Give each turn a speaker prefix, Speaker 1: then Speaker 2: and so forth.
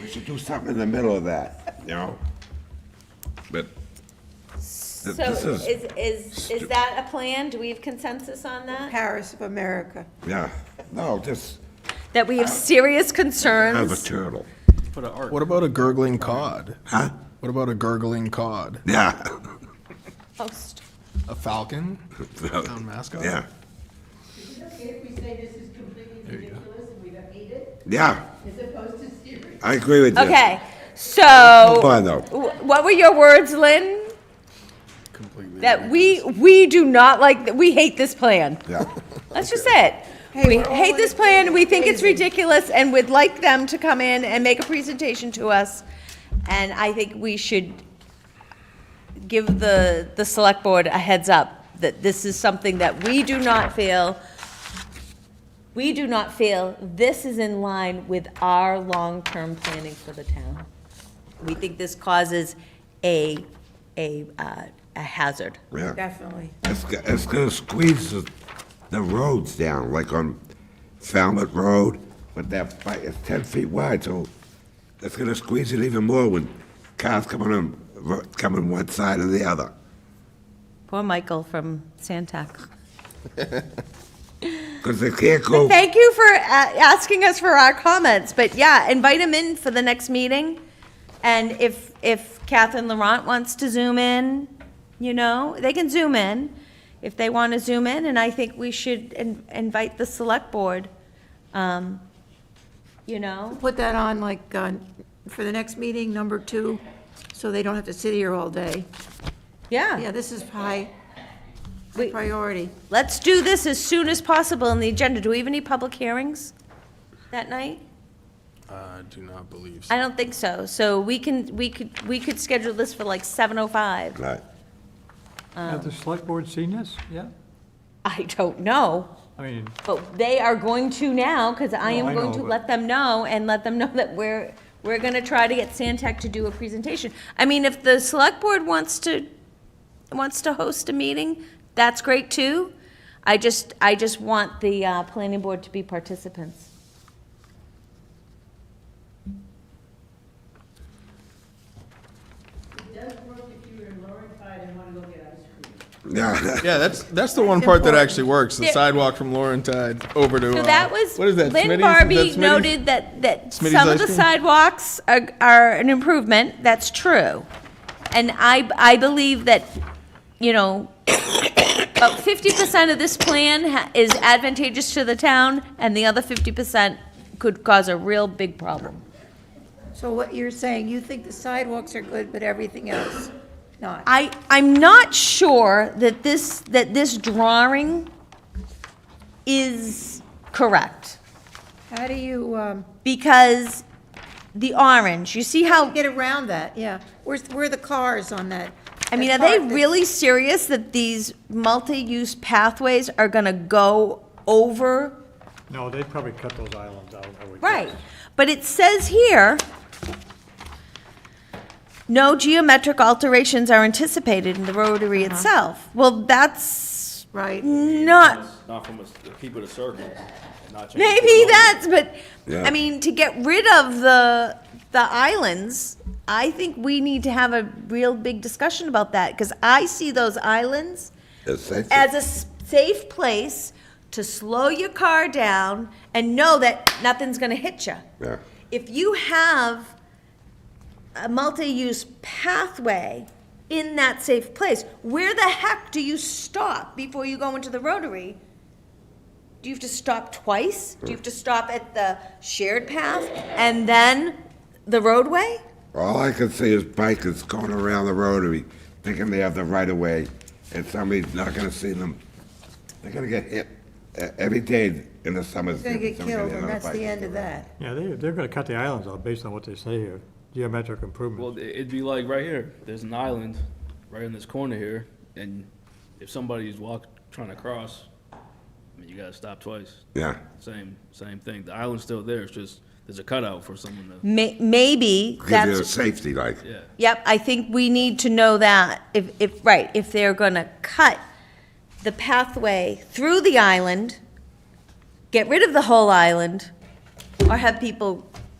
Speaker 1: We should do something in the middle of that, you know? But
Speaker 2: So
Speaker 1: th- this
Speaker 2: is,
Speaker 1: is,
Speaker 2: is, is
Speaker 1: stu-
Speaker 2: that a plan? Do we have consensus on that?
Speaker 3: Paris of America.
Speaker 1: yeah, no, just
Speaker 2: That we have serious
Speaker 1: have a
Speaker 2: concerns?
Speaker 1: turtle.
Speaker 4: What about a gurgling cod?
Speaker 1: Huh?
Speaker 4: What about a gurgling cod?
Speaker 1: Yeah.
Speaker 2: Oh, st-
Speaker 4: A falcon?
Speaker 1: Oh,
Speaker 4: Town mascot?
Speaker 1: Yeah,
Speaker 5: Is it okay if we say this is completely ridiculous and we don't need it,
Speaker 1: yeah,
Speaker 5: as opposed to serious?
Speaker 1: I agree with you.
Speaker 2: Okay,
Speaker 1: Come
Speaker 2: so,
Speaker 1: on, though.
Speaker 2: wh- what were your words, Lynn?
Speaker 4: Completely.
Speaker 2: That we, we do not like, we hate this plan.
Speaker 1: Yeah,
Speaker 2: That's just it. We hate this plan, we think it's ridiculous, and we'd like them to come in and make a presentation to us. And I think we should give the, the select board a heads up that this is something that we do not feel, we do not feel this is in line with our long-term planning for the town. We think this causes a, a, uh, a hazard.
Speaker 1: yeah.
Speaker 3: Definitely.
Speaker 1: It's, go- it's gonna squeeze the, the roads down, like on Falmouth Road, with that, bike, it's ten feet wide, so it's gonna squeeze it even more when cars coming on, ro- coming one side or the other.
Speaker 2: Poor Michael from Santac.
Speaker 1: Because they can't go,
Speaker 2: Thank you for uh, asking us for our comments, but yeah, invite him in for the next meeting. And if, if Catherine Laurent wants to zoom in, you know, they can zoom in if they want to zoom in, and I think we should in- invite the select board, um, you know?
Speaker 3: Put that on like, uh, for the next meeting, number two, so they don't have to sit here all day. Yeah,
Speaker 2: Yeah,
Speaker 3: this is high
Speaker 2: We-
Speaker 3: priority.
Speaker 2: let's do this as soon as possible on the agenda. Do we have any public hearings that night?
Speaker 4: I do not believe so.
Speaker 2: I don't think so. So we can, we could, we could schedule this for like 7:05.
Speaker 1: right,
Speaker 6: Have the select board seen this? Yeah?
Speaker 2: I don't know,
Speaker 6: I mean,
Speaker 2: but they are going to now, because I
Speaker 6: No,
Speaker 2: am
Speaker 6: I
Speaker 2: going to
Speaker 6: know, but-
Speaker 2: let them know and let them know that we're, we're gonna try to get Sandtech to do a presentation. I mean, if the select board wants to, wants to host a meeting, that's great too. I just, I just want the, uh, planning board to be participants.
Speaker 5: It does work if you were in Lower Tide and want to go get ice cream.
Speaker 1: yeah.
Speaker 4: Yeah, that's, that's the one part that actually works, the
Speaker 2: There-
Speaker 4: sidewalk from Laurentide over to,
Speaker 2: So
Speaker 4: uh,
Speaker 2: that was,
Speaker 4: what is that, Smitty's?
Speaker 2: Lynn
Speaker 4: Is
Speaker 2: Barbie
Speaker 4: that Smitty's?
Speaker 2: noted that, that
Speaker 4: Smitty's
Speaker 2: some of
Speaker 4: ice
Speaker 2: the
Speaker 4: cream?
Speaker 2: sidewalks are, are an improvement, that's true. And I, I believe that, you know, about fifty percent of this plan ha- is advantageous to the town, and the other fifty percent could cause a real big problem.
Speaker 3: So what you're saying, you think the sidewalks are good, but everything else not?
Speaker 2: I, I'm not sure that this, that this drawing is correct,
Speaker 3: How do you, um,
Speaker 2: because the orange, you see how
Speaker 3: get around that? Yeah. Where's, where are the cars on that?
Speaker 2: I mean, are
Speaker 3: that
Speaker 2: they
Speaker 3: part that-
Speaker 2: really serious that these multi-use pathways are gonna go over?
Speaker 6: no, they'd probably cut those islands out, I would guess.
Speaker 2: Right, but it says here, no geometric alterations are anticipated in the rotary itself. Well, that's
Speaker 3: Right.
Speaker 2: not,
Speaker 7: Not from us- the people to circle, not change.
Speaker 2: maybe that's, but,
Speaker 1: Yeah.
Speaker 2: I mean, to get rid of the, the islands, I think we need to have a real big discussion about that, because I see those islands
Speaker 1: Essential.
Speaker 2: as a s- safe place to slow your car down and know that nothing's going to hit you.
Speaker 1: Yeah.
Speaker 2: If you have a multi-use pathway in that safe place, where the heck do you stop before you go into the rotary? Do you have to stop twice? Do you have to stop at the shared path and then the roadway?
Speaker 1: All I can see is bikers going around the rotary, thinking they have the right of way, and somebody's not gonna see them. They're gonna get hit uh, every day in the summer.
Speaker 3: It's Gonna get killed, and that's the end of that.
Speaker 6: Yeah, they, they're gonna cut the islands out based on what they say here, geometric improvement.
Speaker 7: Well, it- it'd be like right here, there's an island right in this corner here, and if somebody's walk, trying to cross, I mean, you gotta stop twice.
Speaker 1: Yeah,
Speaker 7: Same, same thing. The island's still there, it's just, there's a cutout for someone to,
Speaker 2: May- Maybe
Speaker 1: give you a
Speaker 2: that's
Speaker 1: safety like,
Speaker 7: yeah.
Speaker 2: Yep, I think we need to know that, if, if, right, if they're gonna cut the pathway through the island, get rid of the whole island, or have people